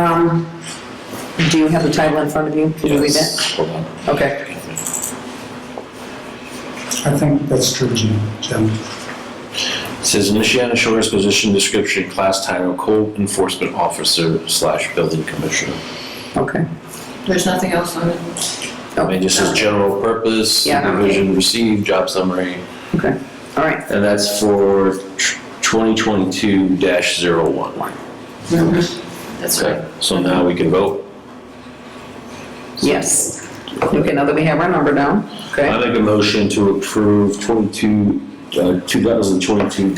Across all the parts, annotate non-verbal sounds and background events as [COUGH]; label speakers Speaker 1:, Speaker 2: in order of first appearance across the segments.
Speaker 1: Um, Do you have the title in front of you? Can you read that?
Speaker 2: Hold on.
Speaker 1: Okay.
Speaker 3: I think that's true, Jim. Jim.
Speaker 2: It Says Michiana Shores position description, class title, code enforcement officer slash building commissioner.
Speaker 1: Okay.
Speaker 4: There's nothing else on it?
Speaker 2: I mean, just says general purpose,
Speaker 1: Oh. Yeah.
Speaker 2: supervision received, job summary,
Speaker 1: Okay, all right.
Speaker 2: and that's for twenty twenty-two dash zero one.
Speaker 4: That's right.
Speaker 2: Okay, so now we can vote.
Speaker 1: Yes. Okay, now that we have our number down,
Speaker 2: I
Speaker 1: okay?
Speaker 2: make a motion to approve 22, uh, 2022-01,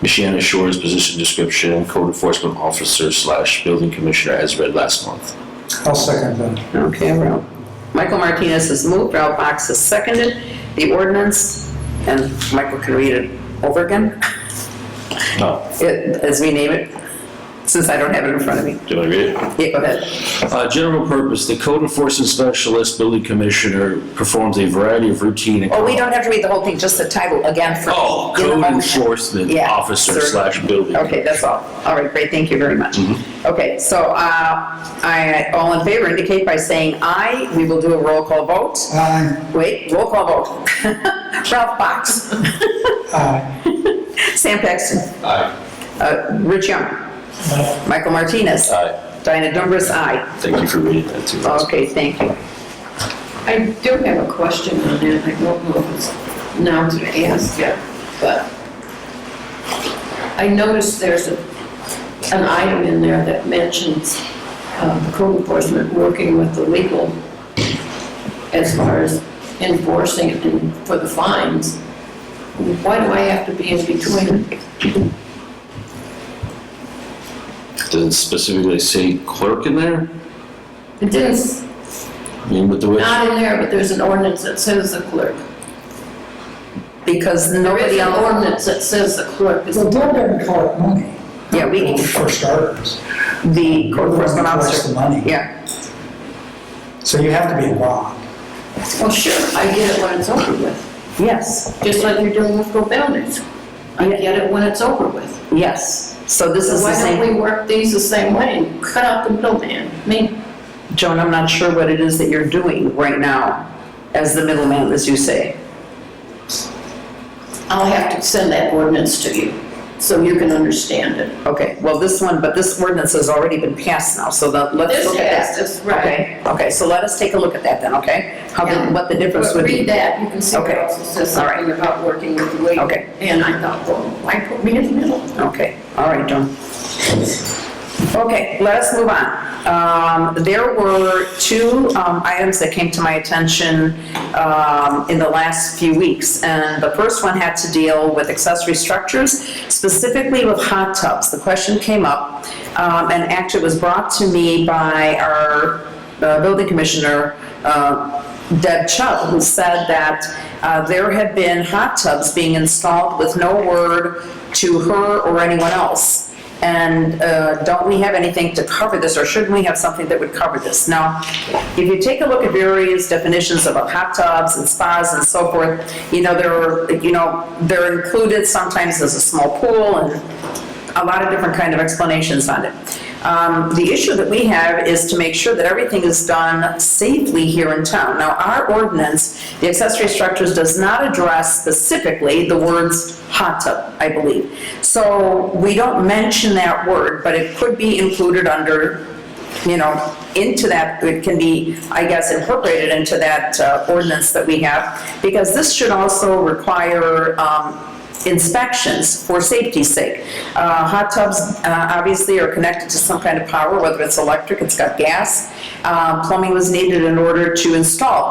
Speaker 2: Michiana Shores position description, code enforcement officer slash building commissioner as read last month.
Speaker 3: I'll second that.
Speaker 1: Okay, Ralph. Michael Martinez has moved, Ralph Box has seconded the ordinance, and Michael can read it over again, Oh.
Speaker 2: No,
Speaker 1: it- as we name it, since I don't have it in front of me.
Speaker 2: do I read it?
Speaker 1: Yeah, go ahead.
Speaker 2: Uh, General purpose, the code enforcement specialist, building commissioner, performs a variety of routine. and-
Speaker 1: Oh, we don't have to read the whole thing, just the title again for.
Speaker 2: Oh,
Speaker 1: in the
Speaker 2: code
Speaker 1: motion.
Speaker 2: enforcement
Speaker 1: Yeah,
Speaker 2: officer
Speaker 1: sir.
Speaker 2: slash building.
Speaker 1: Okay, that's all. All right, great, thank you very much. Okay, so uh, I, all in favor indicate by saying aye. We will do a roll call vote.
Speaker 3: Aye,
Speaker 1: Wait, roll call vote. [LAUGHS] Ralph Box.
Speaker 3: aye,
Speaker 1: Sam Paxton. Aye. Rich Young. Michael Martinez.
Speaker 2: Aye.
Speaker 1: Diana Dumbriz, aye.
Speaker 2: Thank you for reading that too.
Speaker 1: Okay, thank you.
Speaker 4: I do have a question on that, I don't know if it's now to ask yet, but I noticed there's a, an item in there that mentions um, code enforcement working with the legal as far as enforcing and for the fines. Why do I have to be in between?
Speaker 2: Does it specifically say clerk in there?
Speaker 4: It is
Speaker 2: I mean, with the way.
Speaker 4: not in there, but there's an ordinance that says the clerk.
Speaker 1: Because
Speaker 4: There is
Speaker 1: nobody
Speaker 4: an
Speaker 1: else,
Speaker 4: ordinance that says the clerk is
Speaker 3: Well, don't ever call it money.
Speaker 1: Yeah, we-
Speaker 3: For starters.
Speaker 1: the code enforcement
Speaker 3: Who collects
Speaker 1: officer.
Speaker 3: the money?
Speaker 1: Yeah,
Speaker 3: So you have to be involved.
Speaker 4: Well, sure, I get it when it's over with,
Speaker 1: yes,
Speaker 4: just like you're doing with Go Bounders. I get it when it's over with.
Speaker 1: yes. So this
Speaker 4: So
Speaker 1: is the
Speaker 4: why
Speaker 1: same.
Speaker 4: don't we work these the same way and cut out the middleman? I mean,
Speaker 1: Joan, I'm not sure what it is that you're doing right now as the middleman, as you say.
Speaker 4: I'll have to send that ordinance to you so you can understand it.
Speaker 1: Okay, well, this one, but this ordinance has already been passed now, so the, let's
Speaker 4: This
Speaker 1: look at
Speaker 4: has,
Speaker 1: that.
Speaker 4: this- right.
Speaker 1: Okay, okay, so let us take a look at that then, okay? How, the-
Speaker 4: Yeah.
Speaker 1: what the difference
Speaker 4: But
Speaker 1: would
Speaker 4: Read
Speaker 1: be.
Speaker 4: that, you can see it
Speaker 1: Okay.
Speaker 4: also says
Speaker 1: All right.
Speaker 4: something about working with the league.
Speaker 1: Okay.
Speaker 4: And I thought, well, why put me in the middle?
Speaker 1: Okay, all right, Joan. Okay, let us move on. Um, There were two um, items that came to my attention um, in the last few weeks. And the first one had to deal with accessory structures, specifically with hot tubs. The question came up, um, and actually it was brought to me by our uh, building commissioner, uh, Deb Chubb, who said that uh, there had been hot tubs being installed with no word to her or anyone else. And uh, don't we have anything to cover this, or shouldn't we have something that would cover this? Now, if you take a look at various definitions of hot tubs and spas and so forth, you know, they're, you know, they're included sometimes as a small pool and a lot of different kind of explanations on it. Um, The issue that we have is to make sure that everything is done safely here in town. Now, our ordinance, the accessory structures, does not address specifically the words hot tub, I believe. So we don't mention that word, but it could be included under, you know, into that, it can be, I guess, incorporated into that uh, ordinance that we have, because this should also require um, inspections for safety's sake. Uh, Hot tubs uh, obviously are connected to some kind of power, whether it's electric, it's got gas. Uh, Plumbing was needed in order to install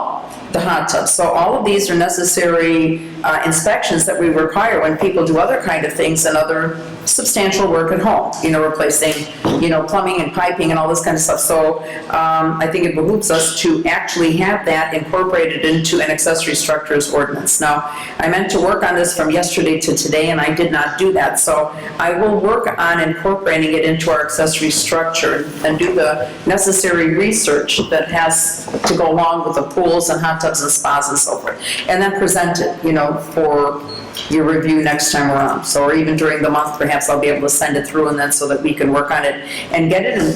Speaker 1: the hot tub. So all of these are necessary uh, inspections that we require when people do other kind of things and other substantial work at home, you know, replacing, you know, plumbing and piping and all this kind of stuff. So um, I think it behooves us to actually have that incorporated into an accessory structures ordinance. Now, I meant to work on this from yesterday to today, and I did not do that. So I will work on incorporating it into our accessory structure and do the necessary research that has to go along with the pools and hot tubs and spas and so forth. And then present it, you know, for your review next time around. So, or even during the month, perhaps I'll be able to send it through and then so that we can work on it and get it in